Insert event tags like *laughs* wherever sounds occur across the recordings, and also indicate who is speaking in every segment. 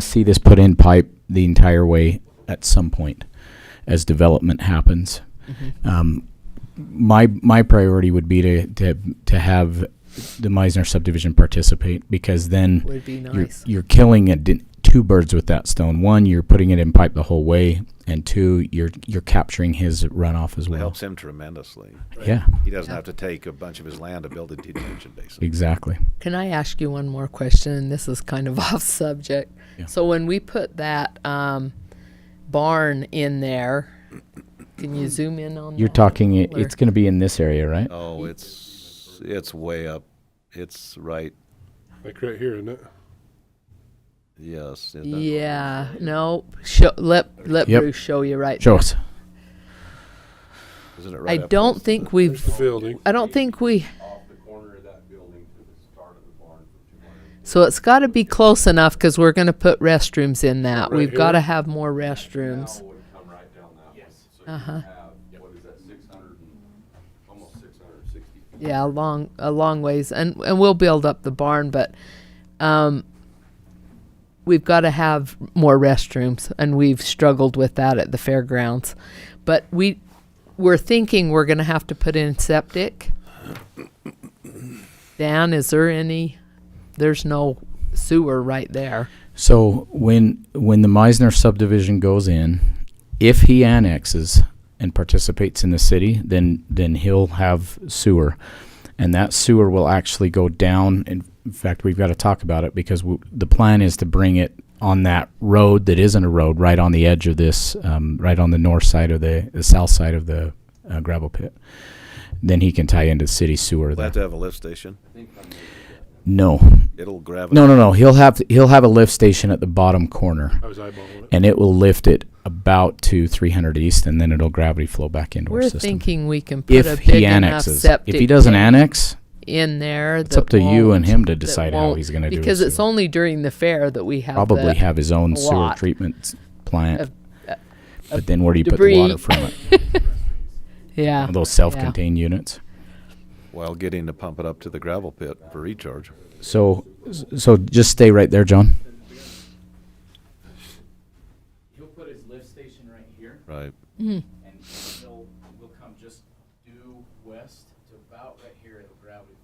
Speaker 1: to see this put in pipe the entire way at some point as development happens.
Speaker 2: Mm-hmm.
Speaker 1: Um, my my priority would be to to to have the Meisner subdivision participate because then
Speaker 2: Would be
Speaker 1: you're,
Speaker 2: nice.
Speaker 1: you're killing a di- two birds with that stone. One, you're putting it in pipe the whole way, and two, you're you're capturing his runoff as
Speaker 3: It
Speaker 1: well.
Speaker 3: helps him tremendously.
Speaker 1: Yeah,
Speaker 3: He doesn't have to take a bunch of his land to build a detention basin.
Speaker 1: exactly.
Speaker 2: Can I ask you one more question? This is kind of *laughs* off subject.
Speaker 1: Yeah.
Speaker 2: So when we put that um, barn in there, can you zoom in on?
Speaker 1: You're
Speaker 2: that?
Speaker 1: talking. It,
Speaker 2: Or-
Speaker 1: it's going to be in this area, right?
Speaker 3: Oh, it's, it's way up. It's right,
Speaker 4: Like right here, isn't it?
Speaker 3: yes. isn't it?
Speaker 2: Yeah. No. Show, let let
Speaker 1: Yep.
Speaker 2: Bruce show you right.
Speaker 1: Show us.
Speaker 3: Isn't it
Speaker 2: I
Speaker 3: right up?
Speaker 2: don't think we've.
Speaker 4: The building.
Speaker 2: I don't think we.
Speaker 5: off the corner of that building to the start of the barn for two hundred.
Speaker 2: So it's got to be close enough because we're going to put restrooms in that.
Speaker 4: Right
Speaker 2: We've got to
Speaker 4: here?
Speaker 2: have more restrooms. Uh-huh.
Speaker 5: Now would come right down that way. So you have, what is that, six hundred and, almost six hundred and sixty feet?
Speaker 2: yeah a long a long ways and and we'll build up the barn but um we've got to have more restrooms and we've struggled with that at the fairgrounds but we we're thinking we're going to have to put in septic dan is there any there's no sewer right there
Speaker 1: So when when the Meisner subdivision goes in, if he annexes and participates in the city, then then he'll have sewer, and that sewer will actually go down. In in fact, we've got to talk about it because w- the plan is to bring it on that road that isn't a road, right on the edge of this, um, right on the north side of the, the south side of the uh, gravel pit. Then he can tie into city sewer.
Speaker 3: We'll
Speaker 1: there.
Speaker 3: have to have a lift station.
Speaker 1: No,
Speaker 3: It'll gravitate.
Speaker 1: no, no, no. He'll have he'll have a lift station at the bottom corner.
Speaker 4: I was eyeballing it.
Speaker 1: and it will lift it about to 300 east, and then it'll gravity flow back into
Speaker 2: we're
Speaker 1: our system.
Speaker 2: thinking we can put a
Speaker 1: if
Speaker 2: big
Speaker 1: he
Speaker 2: enough
Speaker 1: annexes, if
Speaker 2: septic
Speaker 1: he doesn't
Speaker 2: tank
Speaker 1: annex,
Speaker 2: in there
Speaker 1: it's up to you and him to
Speaker 2: that
Speaker 1: decide how
Speaker 2: won't-
Speaker 1: he's going to do it.
Speaker 2: because it's only during the fair that we have
Speaker 1: probably
Speaker 2: the-
Speaker 1: have his own sewer
Speaker 2: lot
Speaker 1: treatment s- plant,
Speaker 2: of-
Speaker 1: but then where do you put
Speaker 2: debris.
Speaker 1: the water from it?
Speaker 2: *laughs* Yeah.
Speaker 1: Those self-contained units.
Speaker 3: While getting to pump it up to the gravel pit for recharge.
Speaker 1: So, so just stay right there, John.
Speaker 5: He'll put his lift station right here,
Speaker 3: Right.
Speaker 2: Hmm.
Speaker 5: and he'll, will come just due west to about right here at the gravity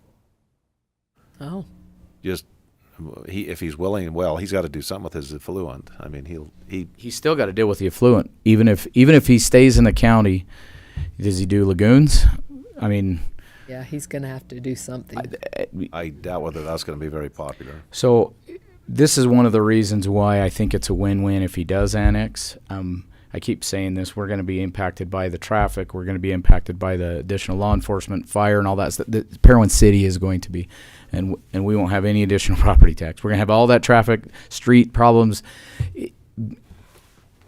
Speaker 5: flow.
Speaker 2: Oh,
Speaker 3: Just, he, if he's willing, well, he's got to do something with his effluent. I mean, he'll, he,
Speaker 1: He's still got to deal with the affluent, even if even if he stays in the county. Does he do lagoons? I mean, eh,
Speaker 2: yeah. He's going to have to do something.
Speaker 3: I doubt whether that's going to be very popular.
Speaker 1: So this is one of the reasons why I think it's a win-win if he does annex. Um, I keep saying this: we're going to be impacted by the traffic. We're going to be impacted by the additional law enforcement, fire, and all that. stuff. The Parowan City is going to be, and w- and we won't have any additional *laughs* property tax. We're going to have all that traffic, street problems. I-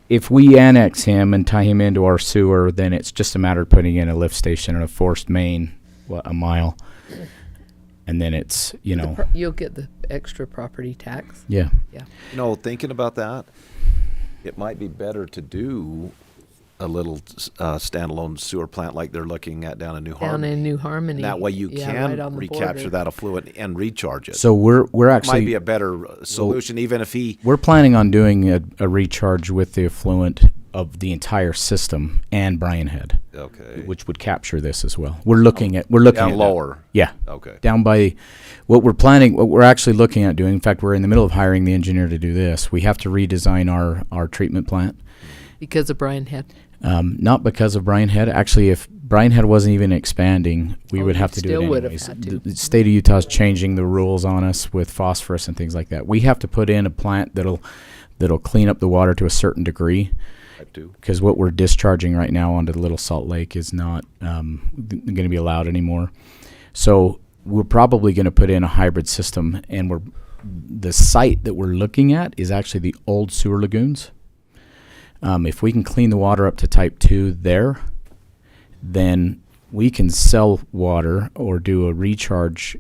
Speaker 1: If we annex him and tie him into our sewer, then it's just a matter of putting in a lift station and a forced main, what a mile, and then it's you know
Speaker 2: Pro- You'll get the extra property tax.
Speaker 1: yeah.
Speaker 3: You know, thinking about that, it might be better to do a little uh, standalone sewer plant like they're looking at down in New
Speaker 2: Down
Speaker 3: Harmony.
Speaker 2: in New Harmony.
Speaker 3: that way you
Speaker 2: Yeah,
Speaker 3: can
Speaker 2: right on the
Speaker 3: recapture
Speaker 2: border.
Speaker 3: that affluent and recharge it.
Speaker 1: So we're we're actually
Speaker 3: might be a better uh, solution, even if he.
Speaker 1: we're planning on doing a, a recharge with the affluent of the entire system and Brian Head,
Speaker 3: Okay.
Speaker 1: which would capture this as well. We're looking at we're looking
Speaker 3: Down
Speaker 1: at that.
Speaker 3: lower.
Speaker 1: Yeah.
Speaker 3: Okay.
Speaker 1: Down by what we're planning, what we're actually looking at doing. In fact, we're in the middle of hiring the engineer to do this. We have to redesign our our treatment plant.
Speaker 2: Because of Brian Head.
Speaker 1: Um, not because of Brian Head. Actually, if Brian Head wasn't even expanding, we
Speaker 2: Oh,
Speaker 1: would
Speaker 2: you
Speaker 1: have to do
Speaker 2: still
Speaker 1: it
Speaker 2: would have
Speaker 1: anyways.
Speaker 2: had to.
Speaker 1: The- The state of Utah's changing the rules on us with phosphorus and things like that. We have to put in a plant that'll that'll clean up the water to a certain degree
Speaker 3: Type two.
Speaker 1: because what we're discharging right now onto the Little Salt Lake is not um, going to be allowed anymore. So we're probably going to put in a hybrid system, and we're the site that we're looking at is actually the old sewer lagoons. Um, if we can clean the water up to type two there, then we can sell water or do a recharge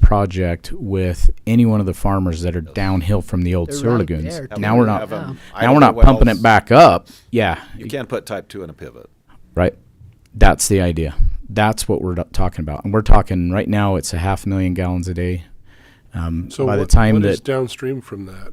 Speaker 1: project with any one of the farmers that are downhill from the old
Speaker 2: They're
Speaker 1: sewer
Speaker 2: right
Speaker 1: lagoons.
Speaker 2: there,
Speaker 1: Now
Speaker 2: too.
Speaker 1: we're not
Speaker 3: Have 'em-
Speaker 2: Wow.
Speaker 3: I
Speaker 1: now
Speaker 3: don't
Speaker 1: we're
Speaker 3: know
Speaker 1: not
Speaker 3: what
Speaker 1: pumping
Speaker 3: else-
Speaker 1: it back up. Yeah,
Speaker 3: You can't put type two in a pivot.
Speaker 1: right. That's the idea. That's what we're do- talking about, and we're talking right now. It's a half million gallons a day. Um,
Speaker 4: So
Speaker 1: by
Speaker 4: what,
Speaker 1: the time
Speaker 4: what
Speaker 1: that
Speaker 4: is downstream from that?